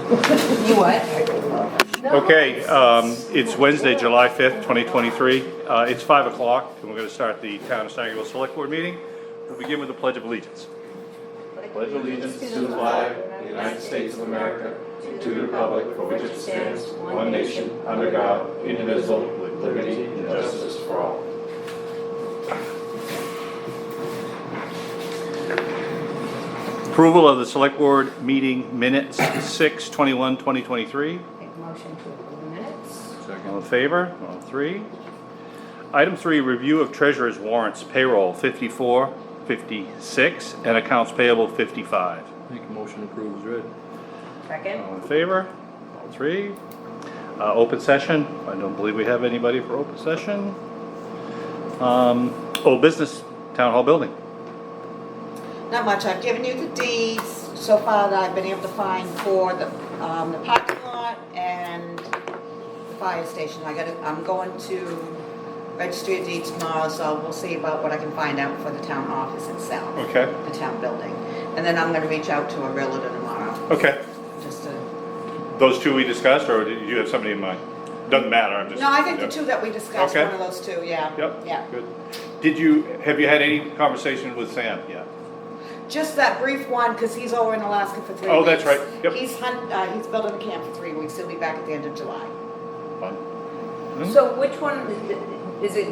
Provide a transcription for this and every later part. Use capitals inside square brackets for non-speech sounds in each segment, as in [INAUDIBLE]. You what? Okay, um, it's Wednesday, July 5th, 2023. Uh, It's 5 o'clock, and we're going to start the Town of Sangerville Select Board meeting. We'll begin with the Pledge of Allegiance. pledge allegiance to the flag of the United States of America, and to the republic for which it stands, one nation, under God, indivisible, with liberty and justice for all. Approval of the Select Board meeting minutes 6/21/2023. Make a motion to approve the minutes. All in favor? All three. Item three, review of treasurer's warrants payroll 54, 56, and accounts payable 55. Make a motion to approve as read. Second. All in favor? All three. Uh, Open session, I don't believe we have anybody for open session. Um, Old business, town hall building. Not much, I've given you the deeds so far that I've been able to find for the, um, the parking lot and the fire station. I gotta, I'm going to registry of deeds tomorrow, so we'll see about what I can find out for the town office itself. Okay. The town building. And then I'm gonna reach out to a realtor tomorrow, Okay, just to, those two we discussed, or did you have somebody in mind? Doesn't matter, I'm just. no, I think the two that we discussed, Okay. one of those two, yeah. Yeah. Yep, good. Did you, have you had any conversation with Sam yet? Just that brief one, because he's over in Alaska for three weeks. Oh, that's right. Yep. He's hunt, uh, he's building a camp for three weeks, he'll be back at the end of July. Fun. Hmm? So which one, is it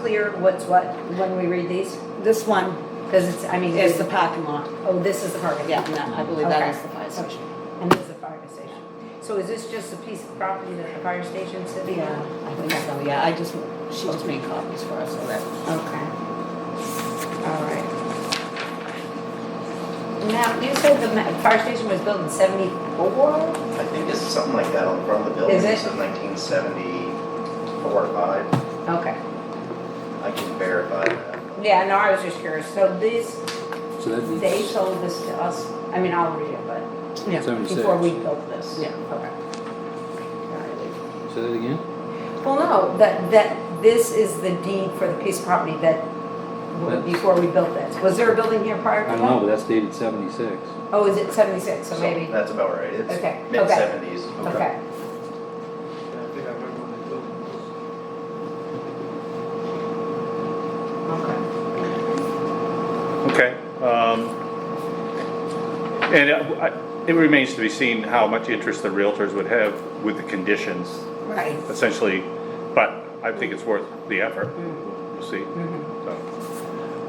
clear what's what when we read these? This one Because it's, I mean, is it's the the, parking lot. oh, this is the parking. Yeah, and that- I believe that Okay. is the fire station. And this is the fire station. So is this just a piece of property that the fire station sitting Yeah, on? I think so, yeah, I just, she just made copies for us, so that. Okay. All right. Now, you said the ma- fire station was built in seventy-four? I think it's something like that on front of the building. Is it? It's in nineteen seventy-four or five. Okay. I can verify that. Yeah, no, I was just curious. So these, So that they means sold this to us, I mean, I'll read it, but Yeah. before we seventy-six. built this. Yeah. Okay. Alright. Say that again? Well, no, that, that, this is the deed for the piece of property that, w- That's- before we built this. Was there a building here prior I to that? don't know, but that's dated seventy-six. Oh, is it seventy-six, so maybe, That's about right. Okay, okay. It's mid-seventies. okay. Okay. Okay. um, And uh, I- it remains to be seen how much interest the realtors would have with the conditions, Right. essentially, but I think it's worth the effort. Mm-hmm. We'll see. So,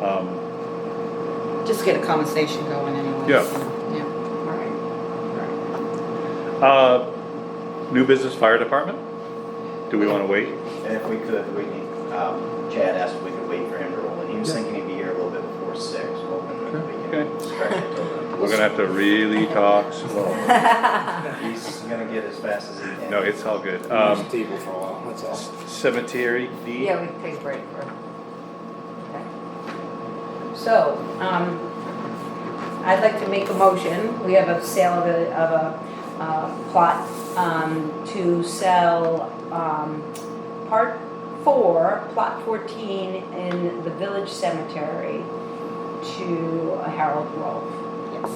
um, Just get a conversation going anyway. Yeah. Yeah. All right. uh, New business fire department? Do we want to wait? And if we could, we need, um, Chad asked if we could wait for him to roll in. He was thinking he'd be here a little bit before six, hoping that we Okay. can stretch it till then. We're gonna have to really talk slow. [LAUGHS] He's gonna get as fast as he can. No, it's all good. Um, table for a while, that's all. Cemetery D. Yeah, we can take a break for. okay. So, um, I'd like to make a motion, we have a sale of a, of a, uh, plot, um, to sell, um, part four, plot fourteen in the village cemetery to Harold Grove. Yes.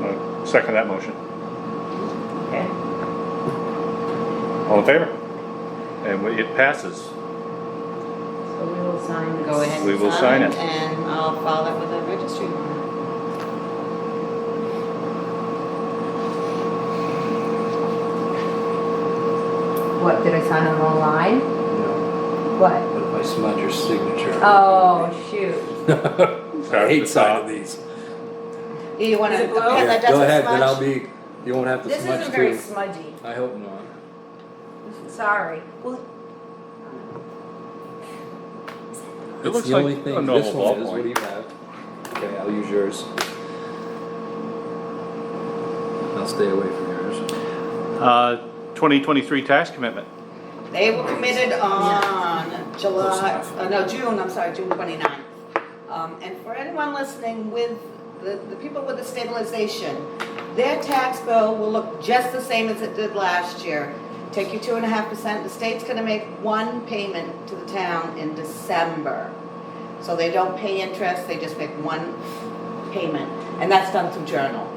Uh, Second that motion. Okay, All in favor? And we- it passes. so we will sign this. Go ahead. We will and sign it. Um, And I'll file that with the registry. What, did I sign on the line? No, What? but if I smudge your signature. Oh, shoot. [LAUGHS] I hate signing these. Do you wanna? Is it blue? a pen Yeah, that Go doesn't ahead, then I'll smudge? be, you won't have to This smudge isn't very too. smudgy. I hope not. Sorry. Well, It It's looks the like only a thing, normal this one is, ballpoint. what do you have? Okay, I'll use yours. I'll stay away from yours. Uh, 2023 tax commitment. They were committed on Close July, enough. uh, no, June, I'm sorry, June 29th. Um, And for anyone listening with, the the people with the stabilization, their tax bill will look just the same as it did last year. Take your 2.5%, the state's going to make one payment to the town in December. So they don't pay interest, they just make one payment. And that's done through journal.